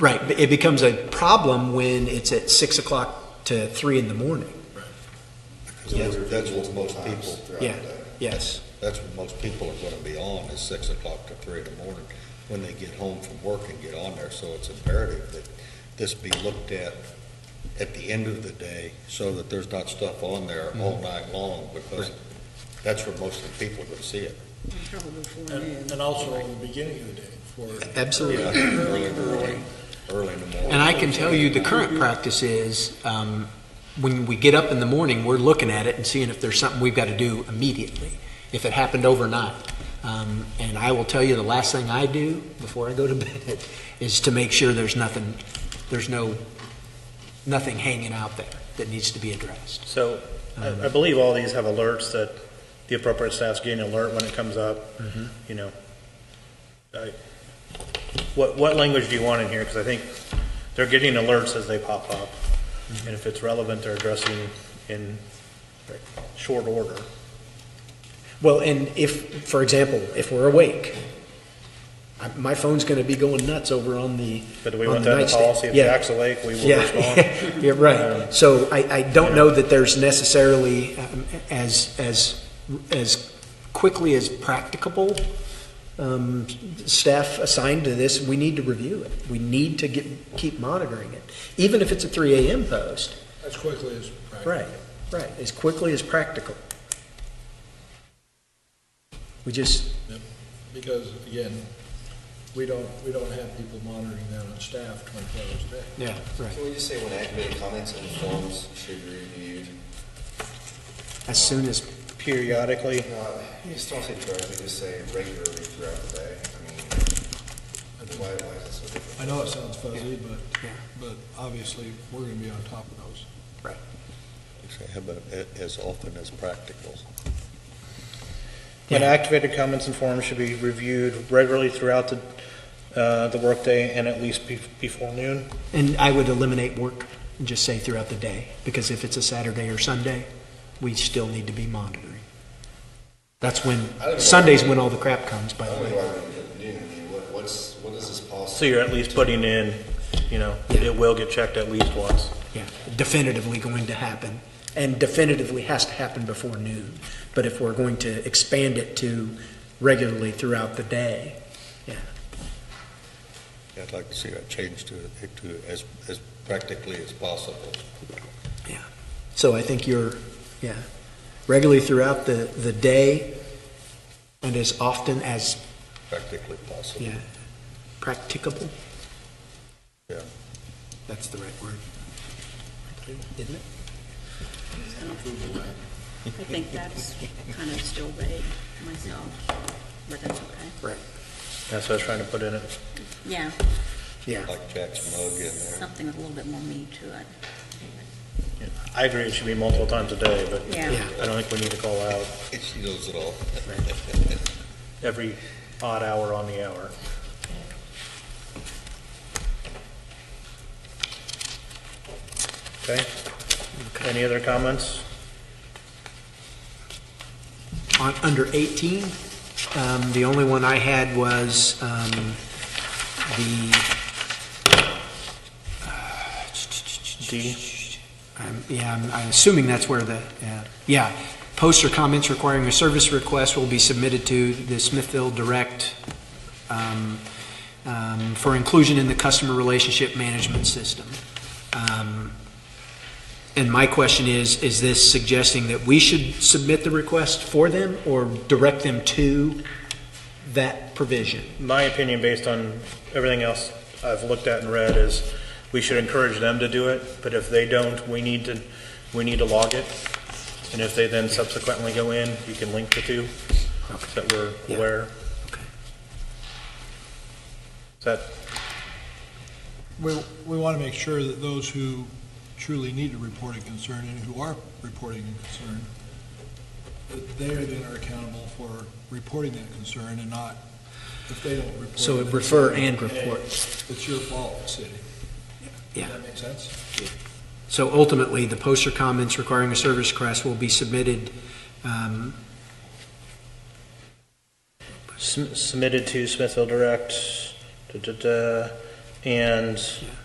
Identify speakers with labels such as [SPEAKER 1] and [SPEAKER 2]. [SPEAKER 1] Right, but it becomes a problem when it's at six o'clock to three in the morning.
[SPEAKER 2] Because that's what most people throughout the
[SPEAKER 1] Yeah,
[SPEAKER 2] day.
[SPEAKER 1] yes,
[SPEAKER 2] That's what most people are gonna be on, is six o'clock to three in the morning, when they get home from work and get on there. So it's imperative that this be looked at at the end of the day, so that there's not stuff on there all night long, because that's where most of the people are gonna see it.
[SPEAKER 3] Probably before noon.
[SPEAKER 4] And, and also in the beginning of the day for.
[SPEAKER 1] absolutely.
[SPEAKER 2] Early in the morning, early in the morning.
[SPEAKER 1] And I can tell you, the current practice is, um, when we get up in the morning, we're looking at it and seeing if there's something we've got to do immediately, if it happened overnight. Um, and I will tell you, the last thing I do before I go to bed is to make sure there's nothing, there's no, nothing hanging out there that needs to be addressed.
[SPEAKER 5] So I I believe all these have alerts that the appropriate staff's getting an alert when it comes up,
[SPEAKER 1] Mm-hmm.
[SPEAKER 5] you know. I- What, what language do you want in here? Because I think they're getting alerts as they pop up.
[SPEAKER 1] Mm-hmm.
[SPEAKER 5] And if it's relevant, they're addressing in short order.
[SPEAKER 1] Well, and if, for example, if we're awake, I- my phone's going to be going nuts over on the,
[SPEAKER 5] But do we
[SPEAKER 1] On
[SPEAKER 5] want
[SPEAKER 1] the
[SPEAKER 5] that in
[SPEAKER 1] nightstand,
[SPEAKER 5] policy? If
[SPEAKER 1] yeah.
[SPEAKER 5] Jack's awake, we will respond.
[SPEAKER 1] Yeah, you're right. So I, I don't know that there's necessarily, um, as, as, as quickly as practicable, um, staff assigned to this, we need to review it. We need to get, keep monitoring it, even if it's a three AM post.
[SPEAKER 4] As quickly as practical.
[SPEAKER 1] Right, right, as quickly as practical. We just,
[SPEAKER 4] Because again, we don't, we don't have people monitoring that on staff twenty-four hours a day.
[SPEAKER 1] yeah, right.
[SPEAKER 6] Can we just say when activated comments and forms should be reviewed?
[SPEAKER 1] As soon as,
[SPEAKER 5] Periodically,
[SPEAKER 6] Uh, You just don't say directly, just say regularly throughout the day. I mean, why, why is it so different?
[SPEAKER 4] I know it sounds fuzzy, but,
[SPEAKER 1] Yeah.
[SPEAKER 4] but obviously, we're gonna be on top of those.
[SPEAKER 2] Say, How about a- as often as practical?
[SPEAKER 5] when activated comments and forms should be reviewed regularly throughout the, uh, the workday and at least be- before noon.
[SPEAKER 1] and I would eliminate work and just say throughout the day, because if it's a Saturday or Sunday, we still need to be monitoring. That's when, Sunday's when all the crap comes, by
[SPEAKER 6] I
[SPEAKER 1] the
[SPEAKER 6] don't know
[SPEAKER 1] way.
[SPEAKER 6] why we put noon, I mean, what, what's, what is this policy?
[SPEAKER 5] So you're at least putting in, you know, it will get checked at least once.
[SPEAKER 1] Yeah, definitively going to happen, and definitively has to happen before noon. But if we're going to expand it to regularly throughout the day,
[SPEAKER 2] I'd like to see that changed to, to as, as practically as possible.
[SPEAKER 1] so I think you're, yeah, regularly throughout the, the day and as often as,
[SPEAKER 2] practically possible.
[SPEAKER 1] yeah, practicable.
[SPEAKER 2] Yeah.
[SPEAKER 1] That's the right word. Isn't it?
[SPEAKER 3] I think that's kind of still vague myself, but that's okay.
[SPEAKER 1] Right.
[SPEAKER 5] That's what I was trying to put in it.
[SPEAKER 3] Yeah,
[SPEAKER 1] Yeah.
[SPEAKER 2] Like Jack's mug in there.
[SPEAKER 3] something with a little bit more meat to it.
[SPEAKER 5] I agree it should be multiple times a day, but
[SPEAKER 3] Yeah.
[SPEAKER 5] I don't think we need to call out
[SPEAKER 2] She knows it all.
[SPEAKER 5] every odd hour on the hour. Okay? Any other comments?
[SPEAKER 1] On, under 18, um, the only one I had was, um, the,
[SPEAKER 5] D?
[SPEAKER 1] um, yeah, uh, I'm, I'm assuming that's where the, yeah. yeah. Posts or comments requiring a service request will be submitted to the Smithville Direct, um, um, for inclusion in the customer relationship management system. Um, And my question is, is this suggesting that we should submit the request for them or direct them to that provision?
[SPEAKER 5] My opinion, based on everything else I've looked at and read, is we should encourage them to do it, but if they don't, we need to, we need to log it. And if they then subsequently go in, you can link the two, so that
[SPEAKER 1] Yeah.
[SPEAKER 5] we're aware.
[SPEAKER 1] Okay.
[SPEAKER 5] Is that
[SPEAKER 4] We, we want to make sure that those who truly need to report a concern and who are reporting a concern, that they then are accountable for reporting that concern and not, if they don't report.
[SPEAKER 1] So
[SPEAKER 4] it, then
[SPEAKER 1] refer
[SPEAKER 4] say,
[SPEAKER 1] and
[SPEAKER 4] "Hey,
[SPEAKER 1] report.
[SPEAKER 4] It's your fault, city.
[SPEAKER 1] Yeah.
[SPEAKER 4] Does that make sense?
[SPEAKER 1] So ultimately, the posts or comments requiring a service request will be submitted, um,
[SPEAKER 5] sum- submitted to Smithville Direct, da, da, da, And